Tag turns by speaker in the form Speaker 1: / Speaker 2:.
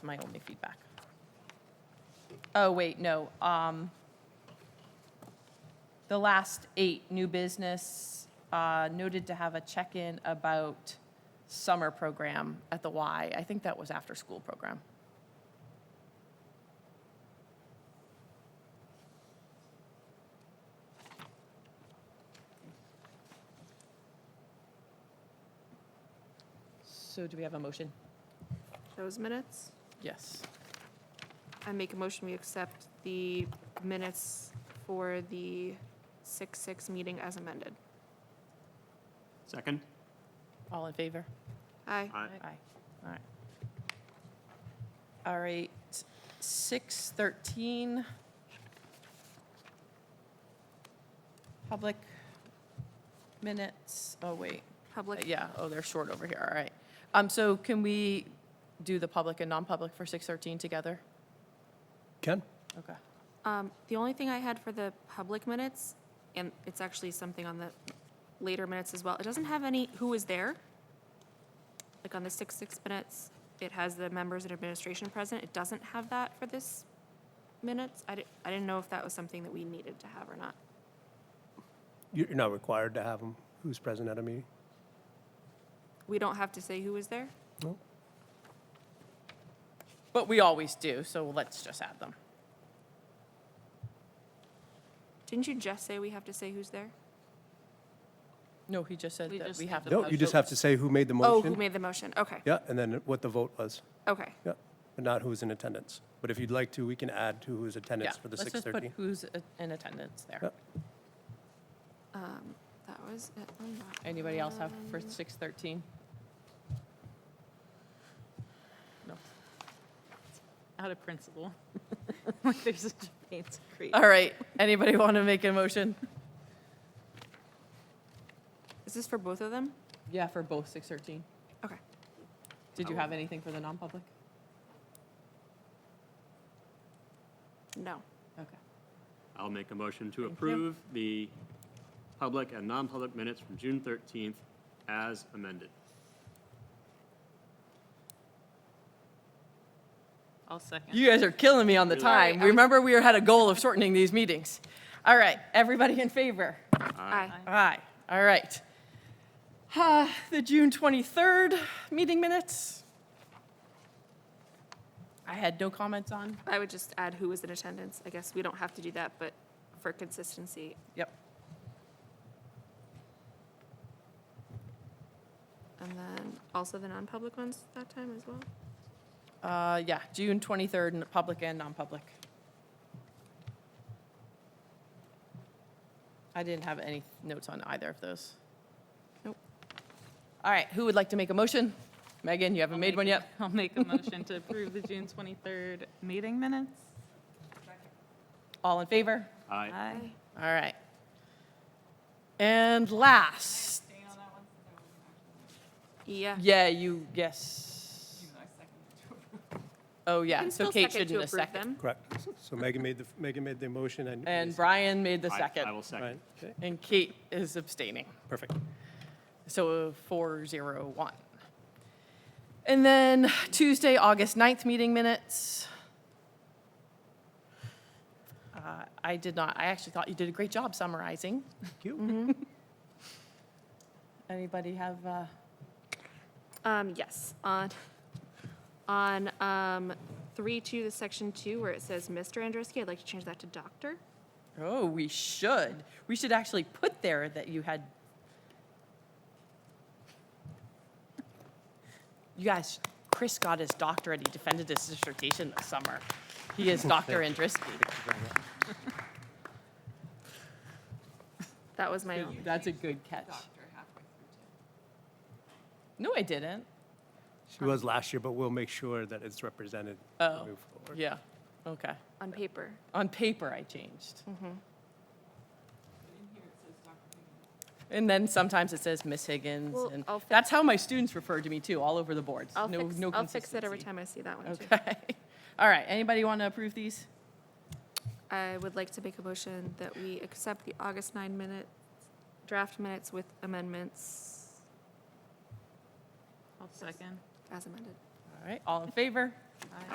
Speaker 1: my only feedback. Oh, wait, no. um, The last eight, new business, uh, noted to have a check-in about summer program at the Y. I think that was after-school program. So do we have a motion?
Speaker 2: Those minutes?
Speaker 1: Yes.
Speaker 2: I make a motion, we accept the minutes for the 6-6 meeting as amended.
Speaker 3: Second?
Speaker 1: All in favor?
Speaker 2: Aye.
Speaker 3: Aye.
Speaker 1: Aye. All right. All right, six thirteen. Public minutes, oh, wait,
Speaker 2: Public,
Speaker 1: yeah, oh, they're short over here, all right. Um, so can we do the public and non-public for six thirteen together?
Speaker 4: Ken?
Speaker 1: Okay.
Speaker 2: um, the only thing I had for the public minutes, and it's actually something on the later minutes as well, it doesn't have any, who was there? Like on the 6-6 minutes, it has the members and administration present, it doesn't have that for this minutes. I didn't, I didn't know if that was something that we needed to have or not.
Speaker 4: You- You're not required to have them. Who's present at a meeting?
Speaker 2: We don't have to say who was there?
Speaker 4: No?
Speaker 1: But we always do, so let's just add them.
Speaker 2: Didn't you just say we have to say who's there?
Speaker 1: No, he just said
Speaker 5: We
Speaker 1: that
Speaker 5: just
Speaker 1: we
Speaker 5: need
Speaker 1: have.
Speaker 5: to
Speaker 1: to
Speaker 4: No, you just have to say who made the
Speaker 2: Oh, who
Speaker 4: motion.
Speaker 2: made the motion? Okay,
Speaker 4: Yeah, and then what the vote was.
Speaker 2: okay.
Speaker 4: Yeah, but not who was in attendance. But if you'd like to, we can add to who's
Speaker 1: Yeah,
Speaker 4: attendance for the
Speaker 1: let's just put
Speaker 4: 6:30.
Speaker 1: who's uh, in attendance
Speaker 4: Yeah.
Speaker 1: there.
Speaker 2: Um, That was it. on that
Speaker 1: Anybody else have for
Speaker 2: one.
Speaker 1: six thirteen? No.
Speaker 5: out of principle. Like there's such a pain to create.
Speaker 1: All right, anybody want to make a motion?
Speaker 2: Is this for both of them?
Speaker 1: Yeah, for both six thirteen.
Speaker 2: Okay.
Speaker 1: Did you have anything for the non-public?
Speaker 2: No.
Speaker 1: Okay.
Speaker 3: I'll make a motion to
Speaker 1: you.
Speaker 3: approve the public and non-public minutes from June 13th as amended.
Speaker 5: I'll second.
Speaker 1: You guys are killing me on the time.
Speaker 2: Sorry, I was-
Speaker 1: Remember, we had a goal of shortening these meetings. All right, everybody in favor?
Speaker 2: Aye.
Speaker 1: Aye, all right. Ah, The June 23rd meeting minutes? I had no comments on.
Speaker 2: I would just add who was in attendance. I guess we don't have to do that, but for consistency,
Speaker 1: Yep.
Speaker 2: and then also the non-public ones that time as well?
Speaker 1: Uh, yeah, June 23rd, n- public and non-public. I didn't have any notes on either of those.
Speaker 2: Nope.
Speaker 1: All right, who would like to make a motion? Megan, you haven't made one yet?
Speaker 5: I'll make a motion to approve the June 23rd meeting minutes.
Speaker 1: All in favor?
Speaker 3: Aye.
Speaker 1: All right. And last,
Speaker 2: Yeah.
Speaker 1: yeah, you, yes. Oh, yeah,
Speaker 2: can
Speaker 1: so
Speaker 2: still
Speaker 1: Kate
Speaker 2: second to
Speaker 1: shouldn't have
Speaker 2: approve
Speaker 1: seconded.
Speaker 2: them.
Speaker 4: Correct. So Megan made the, Megan made the motion and.
Speaker 1: And Brian made the
Speaker 3: I-
Speaker 1: second,
Speaker 3: I will second.
Speaker 4: Right, okay,
Speaker 1: and Kate is abstaining.
Speaker 4: perfect.
Speaker 1: So 401. And then Tuesday, August 9th meeting minutes. Uh, I did not, I actually thought you did a great job summarizing.
Speaker 4: Thank you.
Speaker 1: Anybody have, uh,
Speaker 2: Um, yes, on, on, um, three two, the section two, where it says Mr. Andruski, I'd like to change that to doctor.
Speaker 1: oh, we should. We should actually put there that you had. You guys, Chris got his doctorate, he defended his dissertation this summer. He is Dr. Andriski.
Speaker 2: That was my,
Speaker 1: That's a good catch. No, I didn't.
Speaker 4: She was last year, but we'll make sure that it's represented.
Speaker 1: Oh,
Speaker 4: moving forward.
Speaker 1: Yeah, okay.
Speaker 2: on paper.
Speaker 1: On paper, I changed. And then sometimes it says Miss Higgins,
Speaker 2: Well,
Speaker 1: and
Speaker 2: I'll fix-
Speaker 1: that's how my students refer to me too, all over the boards.
Speaker 2: I'll
Speaker 1: No,
Speaker 2: fix,
Speaker 1: no
Speaker 2: I'll fix it every
Speaker 1: consistency.
Speaker 2: time I see that one too.
Speaker 1: Okay. All right, anybody want to approve these?
Speaker 2: I would like to make a motion that we accept the August 9 minute, draft minutes with amendments
Speaker 5: I'll second.
Speaker 2: as amended.
Speaker 1: All right, all in favor?